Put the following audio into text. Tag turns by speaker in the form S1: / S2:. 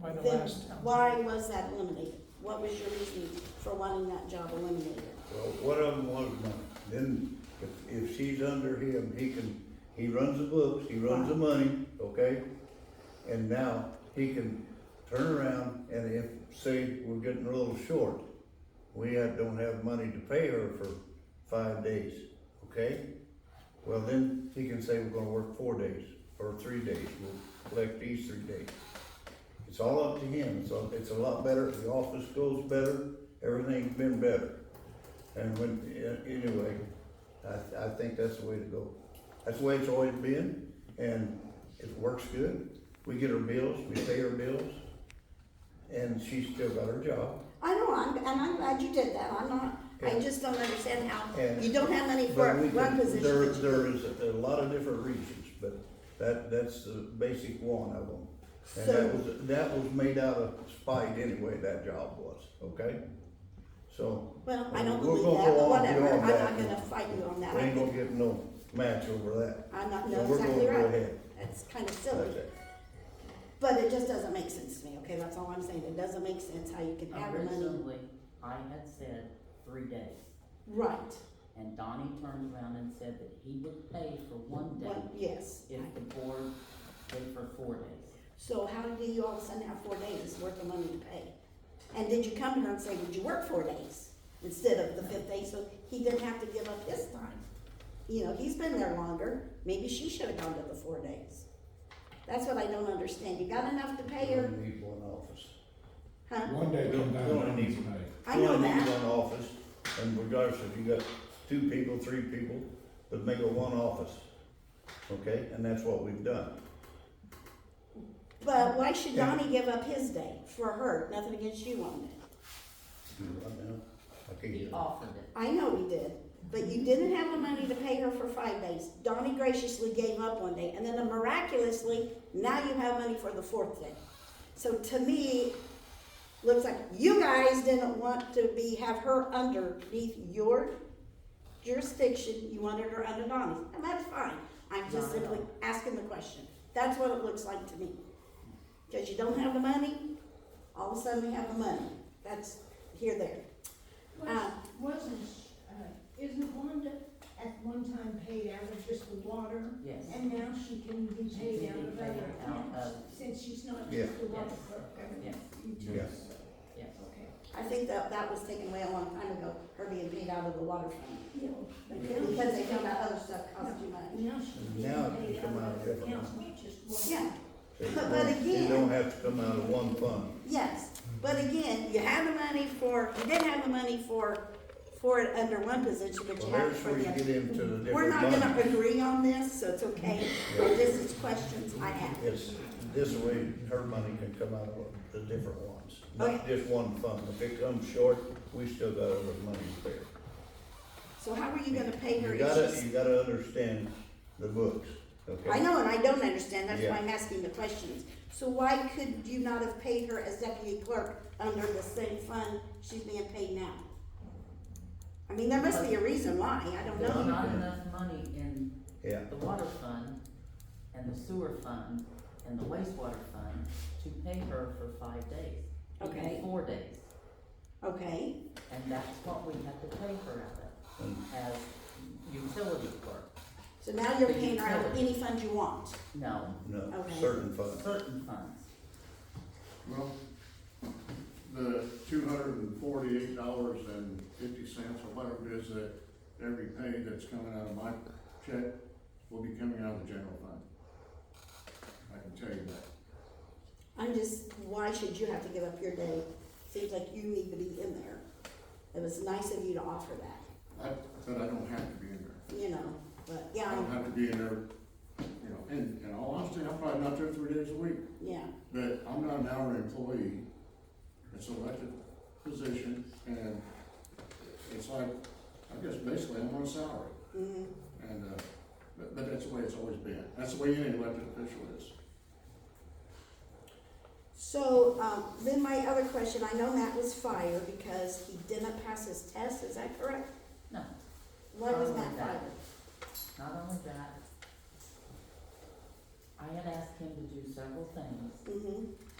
S1: by the
S2: Then
S1: last council.
S2: why was that eliminated? What was your reasoning for wanting that job eliminated?
S3: Well, one of them was money, then if, if she's under him, he can, he runs the books, he runs the money, okay? And now he can turn around and if, say, we're getting a little short, we have- don't have money to pay her for five days, okay? Well, then he can say we're gonna work four days or three days, we'll collect these three days. It's all up to him, it's, a- it's a lot better, the office goes better, everything's been better. And when, a- anyway, I, I think that's the way to go. That's the way it's always been, and it works good. We get her bills, we pay her bills, and she's still got her job.
S2: I know, I'm, and I'm glad you did that, I'm not, I
S3: Yeah.
S2: just don't understand how,
S3: And-
S2: you don't have money for
S3: But we
S2: one
S3: can- There,
S2: position.
S3: there is a lot of different reasons, but that, that's the basic one of them. And that
S2: So,
S3: was, that was made out of spite anyway, that job was, okay? So,
S2: well, I don't
S3: we're
S2: believe
S3: gonna
S2: that,
S3: go
S2: but
S3: on
S2: whatever, I'm
S3: beyond
S2: not
S3: that.
S2: gonna fight you on that.
S3: we
S2: I
S3: ain't gonna
S2: think-
S3: get no match over that.
S2: I'm not,
S3: So
S2: no,
S3: we're gonna
S2: exactly
S3: go
S2: right,
S3: ahead.
S2: that's kinda silly.
S3: Okay.
S2: But it just doesn't make sense to me, okay, that's all I'm saying, it doesn't make sense how you can have the money.
S4: Originally, I had said three days,
S2: Right,
S4: and Donnie turned around and said that he would pay for one
S2: well,
S4: day
S2: yes.
S4: if the board paid for four days.
S2: So how do you all of a sudden have four days worth of money to pay? And did you come to her and say, would you work four days instead of the fifth day, so he didn't have to give up his time? You know, he's been there longer, maybe she should have gone to the four days. That's what I don't understand, you got enough to pay
S3: We
S2: her,
S3: only need one office.
S2: huh?
S5: One day come down,
S3: Well,
S5: one
S3: need-
S5: day.
S2: I know
S3: We only need
S2: that,
S3: one office, and regardless if you got two people, three people, but make it one office, okay? And that's what we've done.
S2: but why should Donnie give up his day for her, nothing against you on it?
S3: Right now, I can't
S4: He
S3: get it.
S4: offered it.
S2: I know he did, but you didn't have the money to pay her for five days. Donnie graciously gave up one day, and then miraculously, now you have money for the fourth day. So to me, looks like you guys didn't want to be, have her underneath your jurisdiction, you wanted her under Donnie's, and that's fine. I'm just
S4: Not at all.
S2: simply asking the question, that's what it looks like to me. Cause you don't have the money, all of a sudden you have the money, that's here, there. Uh,
S6: Was- Wasn't, sh- uh, isn't Wanda at one time paid out of just the water?
S4: Yes.
S6: And now she can be
S4: She
S6: paid
S4: can
S6: out
S4: be
S6: of
S4: paid
S6: other
S4: out of-
S6: accounts, since she's not
S3: Yeah.
S6: just the water
S4: Yes.
S6: clerk. and
S4: Yes.
S6: utilities.
S4: Yes.
S6: Okay.
S2: I think that that was taken away a long time ago, her being paid out of the water fund.
S6: Yeah, but now
S2: Because they
S6: she's
S2: found out
S6: got-
S2: other stuff cost too much.
S6: Now she's being
S3: Now it
S6: paid
S3: can come out
S6: out
S3: of
S6: of
S3: different
S6: accounts,
S3: ones.
S6: not just water.
S2: Yeah,
S3: It
S2: But- but
S3: don't-
S2: again-
S3: It don't have to come out of one fund.
S2: yes, but again, you have the money for, you didn't have the money for, for it under one position, but
S3: Well,
S2: you have it
S3: there's
S2: for
S3: where you
S2: the
S3: get
S2: other.
S3: into the
S2: We're not
S3: different
S2: gonna
S3: money.
S2: agree on this, so it's okay,
S3: Yeah.
S2: this is questions I have.
S3: It's, this way, her money can come out of the different ones, not just one fund. If it comes short, we still got other money to pay.
S2: So how are you gonna pay her
S3: You
S2: if
S3: gotta,
S2: she's?
S3: you gotta understand the books, okay?
S2: I know, and I don't understand, that's
S3: Yeah.
S2: why I'm asking the questions. So why could you not have paid her as deputy clerk under the same fund she's being paid now? I mean, there must be a reason why, I don't know.
S4: There's not enough money in
S3: Yeah,
S4: the water fund, and the sewer fund, and the wastewater fund to pay her for five days. even
S2: Okay.
S4: Four days,
S2: Okay,
S4: and that's what we had to pay her out
S3: and
S4: of, as utility clerk.
S2: so now you're paying her out of any fund you want.
S4: No,
S3: no,
S2: Okay.
S3: certain funds.
S4: certain funds.
S7: Well, the two hundred and forty-eight dollars and fifty cents or whatever it is that every pay that's coming out of my check will be coming out of the general fund. I can tell you that.
S2: I'm just, why should you have to give up your day? Seems like you need to be in there. It was nice of you to offer that,
S7: I, but I don't have to be in there.
S2: you know, but yeah,
S7: I don't
S2: I'm-
S7: have to be in there, you know, and, and all honesty, I'm probably not there three days a week.
S2: yeah,
S7: But I'm not an hour employee, it's an elected position, and it's like, I guess basically I'm on a salary.
S2: mhm.
S7: And, uh, but, but that's the way it's always been. That's the way any elected official is.
S2: So, um, then my other question, I know Matt was fired because he didn't pass his test, is that correct?
S4: No,
S2: Why was Matt
S4: Probably
S2: fired?
S4: not. not only that, I had asked him to do several things,
S2: Mm-hmm,